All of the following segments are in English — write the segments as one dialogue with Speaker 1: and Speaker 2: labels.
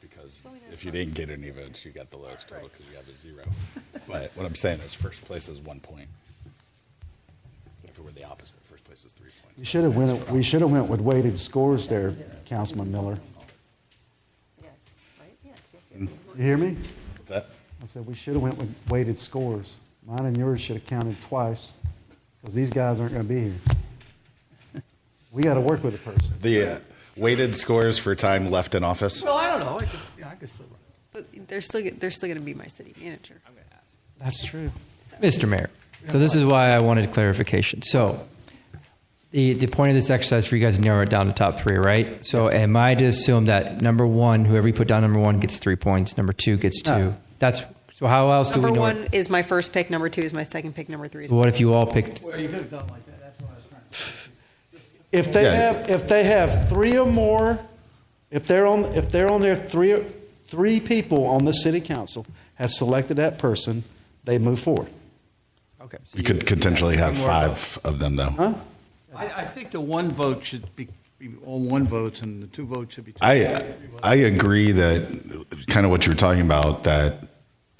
Speaker 1: because if you didn't get an event, you got the lowest total because you have a zero. But what I'm saying is first place is one point. If it were the opposite, first place is three
Speaker 2: We
Speaker 1: points.
Speaker 2: should have went, we should have went with weighted scores there, Councilman Miller.
Speaker 3: Yes, right, yes.
Speaker 2: You hear me?
Speaker 1: What's that?
Speaker 2: I said, we should have went with weighted scores. Mine and yours should have counted twice, because these guys aren't going to be here. We got to work with the person.
Speaker 1: The uh, weighted scores for time left in office.
Speaker 4: Well, I don't know. I could, yeah, I could still run.
Speaker 3: But they're still, they're still going to be my city manager.
Speaker 2: That's true.
Speaker 5: Mr. Mayor, so this is why I wanted clarification. So, the, the point of this exercise for you guys to narrow it down to top three, right? So, am I to assume that number one, whoever you put down number one gets three points, number two gets two?
Speaker 2: No.
Speaker 5: That's so. How else do
Speaker 3: Number
Speaker 5: we know?
Speaker 3: one is my first pick, number two is my second pick, number three is.
Speaker 5: What if you all picked?
Speaker 4: Well, you could have done like that. That's what I was trying to say.
Speaker 2: If they
Speaker 1: Yeah.
Speaker 2: have, if they have three or more, if they're on, if they're on there, three, three people on the city council has selected that person, they move forward.
Speaker 5: Okay, so
Speaker 1: You could potentially have five of them though.
Speaker 4: I, I think the one vote should be, be all one votes, and the two votes should be. Two
Speaker 1: I, uh, I agree that kind of what you were talking about, that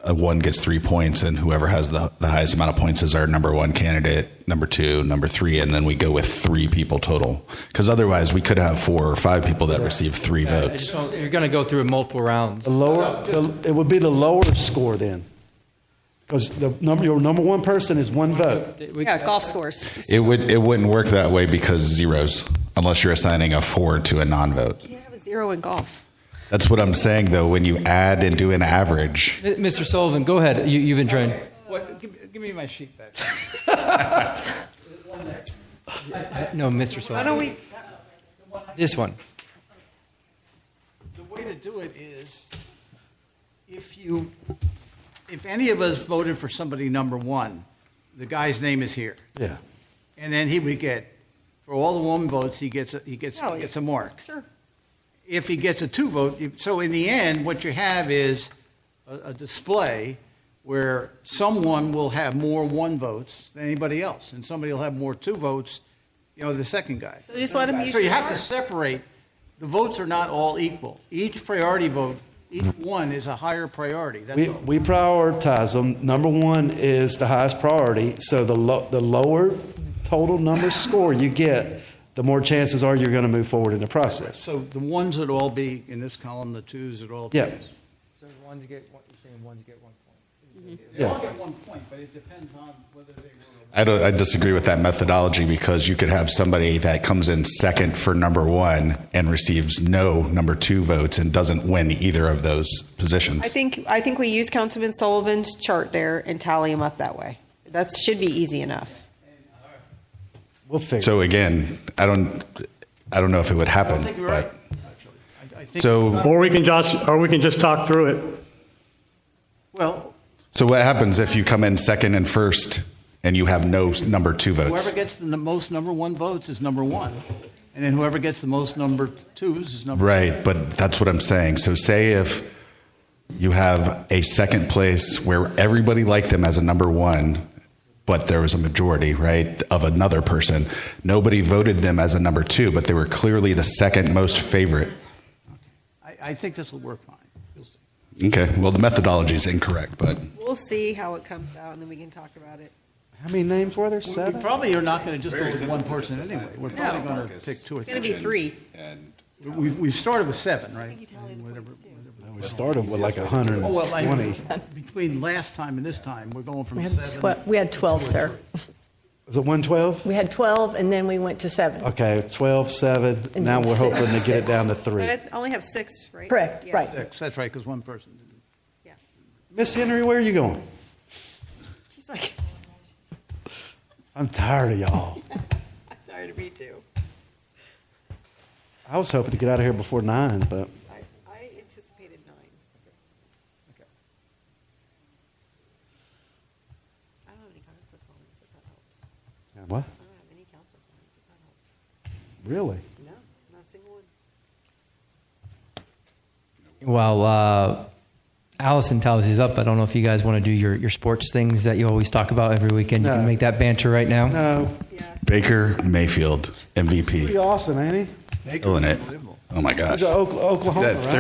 Speaker 1: a one gets three points and whoever has the, the highest amount of points is our number one candidate, number two, number three, and then we go with three people total. Because otherwise we could have four or five people that receive three
Speaker 5: I
Speaker 1: votes.
Speaker 5: just don't- you're going to go through multiple rounds.
Speaker 2: The lower, the- it would be the lower score then, because the number, your number one person is one vote.
Speaker 5: We-
Speaker 3: Yeah, golf scores.
Speaker 1: It would it wouldn't work that way because zeros, unless you're assigning a four to a non-vote.
Speaker 3: You have a zero in golf.
Speaker 1: That's what I'm saying though. When you add and do an average,
Speaker 5: M- Mr. Sullivan, go ahead. You, you've been trying.
Speaker 4: What, give, me- give me my sheet back.
Speaker 5: No, Mr.
Speaker 3: Why don't
Speaker 5: Sullivan.
Speaker 3: we,
Speaker 5: This one.
Speaker 4: The way to do it is, if you, if any of us voted for somebody number one, the guy's name is here,
Speaker 2: Yeah.
Speaker 4: and then he would get, for all the one votes, he gets a, he gets
Speaker 3: No,
Speaker 4: he
Speaker 3: it's-
Speaker 4: gets a mark.
Speaker 3: sure.
Speaker 4: if he gets a two vote, you- so in the end, what you have is a, a display where someone will have more one votes than anybody else, and somebody will have more two votes, you know, the second guy.
Speaker 3: So just let 'em use
Speaker 4: So you
Speaker 3: your
Speaker 4: have to
Speaker 3: mark.
Speaker 4: separate. The votes are not all equal. Each priority vote, each one is a higher priority. That's
Speaker 2: We,
Speaker 4: all.
Speaker 2: we prioritize them. Number one is the highest priority. So the, lo- the lower total number score you get, the more chances are you're going to move forward in the process.
Speaker 4: So the ones would all be in this column, the twos would all.
Speaker 2: Yeah.
Speaker 5: So ones get one, you're saying ones get one point.
Speaker 4: They all
Speaker 2: Yeah.
Speaker 4: get one point, but it depends on whether they were.
Speaker 1: I don't. I disagree with that methodology because you could have somebody that comes in second for number one and receives no number two votes and doesn't win either of those positions.
Speaker 3: I think, I think we use Councilman Sullivan's chart there and tally them up that way. That should be easy enough.
Speaker 2: We'll figure it
Speaker 1: so again, I don't. I don't know if it would happen.
Speaker 4: I think you're
Speaker 1: but-
Speaker 4: right, actually. I, I think.
Speaker 1: So
Speaker 6: Or we can just, or we can just talk through it.
Speaker 4: Well,
Speaker 1: so what happens if you come in second and first and you have no s- number two votes?
Speaker 4: Whoever gets the n- most number one votes is number one, and then whoever gets the most number twos is number.
Speaker 1: Right, but that's what I'm saying. So say if you have a second place where everybody liked them as a number one, but there was a majority, right, of another person. Nobody voted them as a number two, but they were clearly the second most favorite.
Speaker 4: I, I think this will work fine. You'll see.
Speaker 1: Okay, well, the methodology is incorrect, but
Speaker 3: We'll see how it comes out and then we can talk about it.
Speaker 2: out. How many names were there?
Speaker 4: We- We
Speaker 2: Seven?
Speaker 4: probably are not going to just go with one person anyway. We're probably going to pick two or
Speaker 3: It's going to
Speaker 4: three.
Speaker 3: be three.
Speaker 4: We, we started with seven, right?
Speaker 3: You tally the points, too.
Speaker 2: We started with like 120.
Speaker 4: Oh, well, I- between last time and this time, we're going from
Speaker 7: We had,
Speaker 4: seven.
Speaker 7: twe- we had 12, sir.
Speaker 2: Was it 112?
Speaker 7: We had 12, and then we went to seven.
Speaker 2: Okay, 12, 7.
Speaker 7: And
Speaker 2: Now
Speaker 7: then
Speaker 2: we're
Speaker 7: six.
Speaker 2: hoping to get it down to
Speaker 3: But
Speaker 2: three.
Speaker 3: I only have six, right?
Speaker 7: Correct,
Speaker 3: Yeah.
Speaker 7: right.
Speaker 4: Six, That's right, because one person. didn't.
Speaker 3: Yeah.
Speaker 2: Miss Henry, where are you going?
Speaker 3: She's like,
Speaker 2: I'm tired of y'all.
Speaker 3: I'm tired of me too.
Speaker 2: I was hoping to get out of here before nine, but
Speaker 3: I, I anticipated nine. I don't have any council comments, if that helps.
Speaker 2: what?
Speaker 3: I don't have any council comments, if that helps.
Speaker 2: Really?
Speaker 3: No, not a single one.
Speaker 5: While uh, Allison tallies up, I don't know if you guys want to do your, your sports things that you always talk about every weekend. You
Speaker 2: No.
Speaker 5: can make that banter right now.
Speaker 2: No.
Speaker 3: Yeah.
Speaker 1: Baker Mayfield,
Speaker 2: Pretty
Speaker 1: MVP.
Speaker 2: awesome, ain't he?
Speaker 1: Killing it. Oh my gosh.
Speaker 2: He's a Oklahoma,
Speaker 1: That
Speaker 2: right?
Speaker 1: third